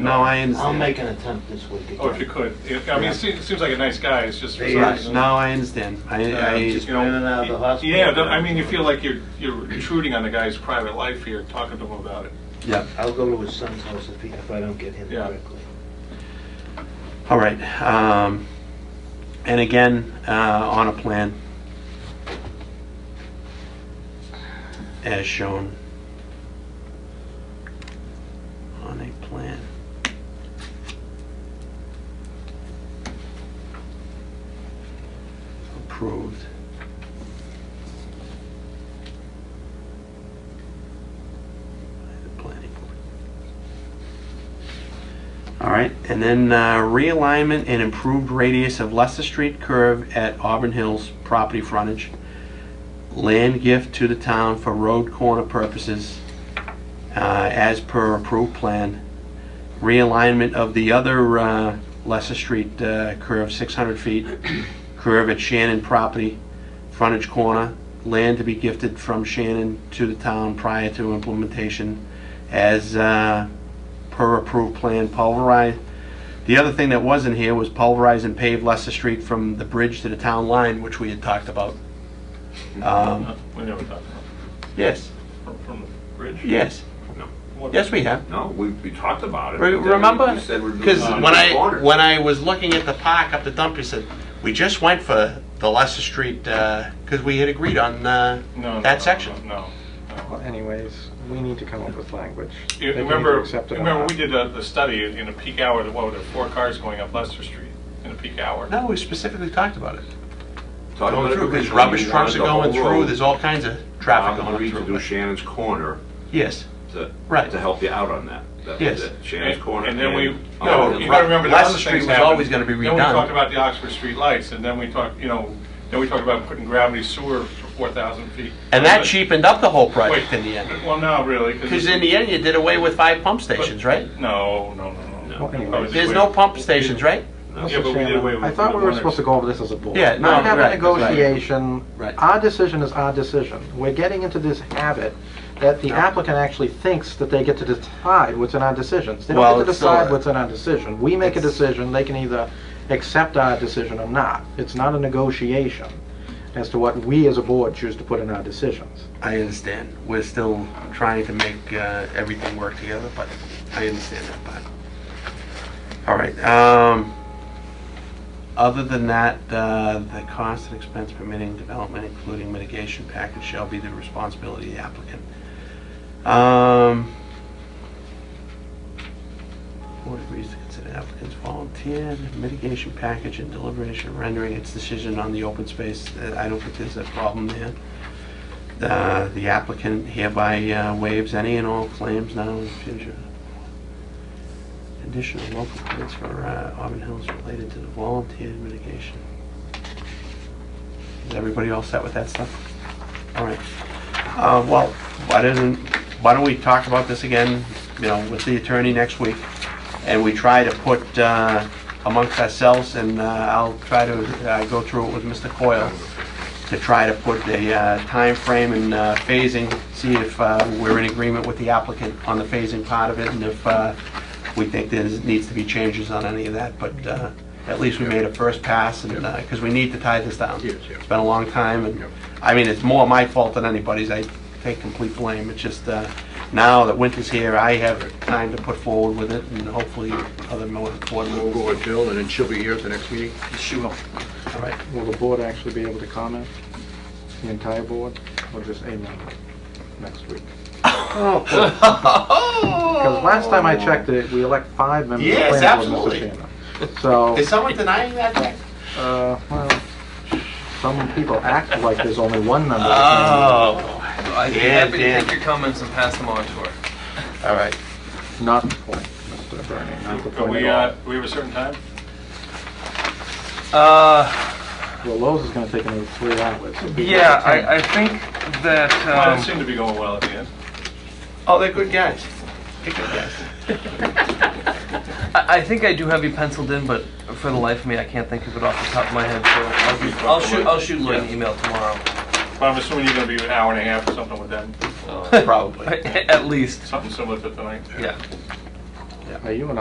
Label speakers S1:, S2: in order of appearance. S1: No, I
S2: I'll
S1: understand.
S2: make an attempt this week again.
S3: Oh, if you could. If- I mean,
S2: Yeah.
S3: it seems seems like a nice guy, it's just for some
S2: Yes.
S3: reason.
S1: No, I understand. I,
S3: uh,
S1: I,
S3: just, you
S2: In and out of the
S3: know,
S2: hospital.
S3: yeah, I mean, you feel like you're, you're intruding on the guy's private life here, talking to him about it.
S1: yeah.
S2: I'll go to his son's house if he, if I don't get him
S3: Yeah.
S2: directly.
S1: All right. Um, and again, uh, on a plan as shown on a plan. Approved. by the planning board. All right, and then uh, realignment and improved radius of Leicester Street curve at Auburn Hills property frontage. Land gift to the town for road corner purposes uh, as per approved plan. Realignment of the other uh, Leicester Street uh, curve, 600 feet, curve at Shannon property, frontage corner. Land to be gifted from Shannon to the town prior to implementation as uh, per approved plan, pulverize. The other thing that wasn't here was pulverize and pave Leicester Street from the bridge to the town line, which we had talked about. Um,
S3: Uh, We never talked about
S1: Yes,
S3: it. From- from the bridge.
S1: yes,
S3: What-
S1: yes, we have.
S4: No, we, we talked about it.
S1: Re-
S4: but then
S1: Remember?
S4: we said we're doing
S1: Because
S4: it on
S1: when
S4: the
S1: I,
S4: corner.
S1: when I was looking at the park up the dump, you said, we just went for the Leicester Street, because we had agreed on uh,
S3: No, no,
S1: that
S3: no,
S1: section.
S3: No, no.
S5: Well, anyways, we need to come up with language.
S3: You
S5: that can
S3: Remember,
S5: either accept it or
S3: remember,
S5: not.
S3: we did the the study in a peak hour, what were there, four cars going up Leicester Street in a peak hour?
S1: No, we specifically talked about it.
S4: Talked about
S1: Going
S4: it
S1: through, because
S4: originally,
S1: rubbish
S4: we
S1: trucks are
S4: wanted the
S1: going
S4: whole
S1: through,
S4: road.
S1: there's all kinds of traffic
S4: Bob
S1: going
S4: agreed to do
S1: through.
S4: Shannon's Corner
S1: Yes.
S4: to,
S1: Right.
S4: to help you out on that. That was
S1: Yes.
S4: it. Shannon's
S3: And
S4: Corner.
S3: and then we,
S4: Oh,
S3: no,
S1: yeah.
S3: you gotta remember, the
S1: Leicester
S3: other
S1: Street
S3: things
S1: was
S3: happened.
S1: always gonna be
S3: Then we
S1: redone.
S3: talked about the Oxford Street lights, and then we talked, you know, then we talked about putting gravity sewer for 4,000 feet.
S1: And that
S3: But-
S1: cheapened up the whole project
S3: Wait.
S1: in the end.
S3: Well, no, really.
S1: Because in the end, you did away with five pump stations, right?
S3: No, no, no, no.
S5: Well, anyway.
S3: That was
S1: There's
S3: way-
S1: no pump stations, right?
S5: Mr.
S3: Yeah, but we did away
S5: Chairman, I
S3: with
S5: thought
S3: the
S5: we were
S3: owners.
S5: supposed to go over this as a board.
S1: Yeah, no,
S5: Not have a
S1: right, right.
S5: negotiation.
S1: Right.
S5: Our decision is our decision. We're getting into this habit that the applicant actually thinks that they get to decide what's in our decisions. They
S1: Well,
S5: don't get to
S1: it's still
S5: decide
S1: a-
S5: what's in our decision. We make a
S1: It's-
S5: decision, they can either accept our decision or not. It's not a negotiation as to what we as a board choose to put in our decisions.
S1: I understand. We're still trying to make uh, everything work together, but I understand that part. All right. um, Other than that, uh, the cost and expense permitting development, including mitigation package, shall be the responsibility of the applicant. Um, Board agrees to consider applicants volunteer, mitigation package and deliberation rendering its decision on the open space. Uh, I don't think there's a problem there. Uh, The applicant hereby uh, waives any and all claims now and in future. Additional local permits for uh, Auburn Hills related to the volunteer mitigation. Is everybody all set with that stuff? All right. Uh, Well, why doesn't, why don't we talk about this again, you know, with the attorney next week? And we try to put uh, amongst ourselves, and uh, I'll try to uh, go through it with Mr. Coyle to try to put a uh, timeframe and uh, phasing, see if uh, we're in agreement with the applicant on the phasing part of it, and if uh, we think there needs to be changes on any of that, but uh, at least we made a first pass, and, because we need to tie this down. It's been a long time, and, I mean, it's more my fault than anybody's, I take complete blame, it's just, uh, now that winter's here, I have time to put forward with it, and hopefully other more board
S6: We'll
S1: members.
S6: go with Bill, and then she'll be here at the next meeting.
S1: All right.
S5: Will the board actually be able to comment? The entire board, or just a member next week?
S7: Oh,
S5: Because last time I checked it, we elect five members. of the
S1: Yes,
S5: planning board, Mr. Chairman.
S1: Is someone denying that?
S5: So, uh, well, some people act like there's only one member. of
S1: Oh,
S7: I'd be
S1: Yeah,
S7: happy to
S1: Dan.
S7: take your comments and pass them on to her.
S1: all right.
S5: the planning board. Not the point, Mr. Bernie, not the
S3: But
S5: point
S3: we,
S5: at
S3: uh, we have a certain time?
S7: Uh,
S5: all. Well, Lowe's is gonna take another three hours. so people
S7: yeah,
S5: have to attend.
S7: I, I think that,
S3: Well, it
S7: um,
S3: seemed to be going well at the end.
S1: Oh, they're good guys. They're good guys.
S7: I, I think I do have you penciled in, but for the life of me, I can't think of it off the top of my head, so I'll, I'll shoot, I'll shoot Lloyd an email tomorrow,
S3: But I'm assuming you're gonna be an hour and a half or something with them,
S1: Probably.
S7: at least,
S3: something similar to tonight.
S7: yeah.
S5: Are you an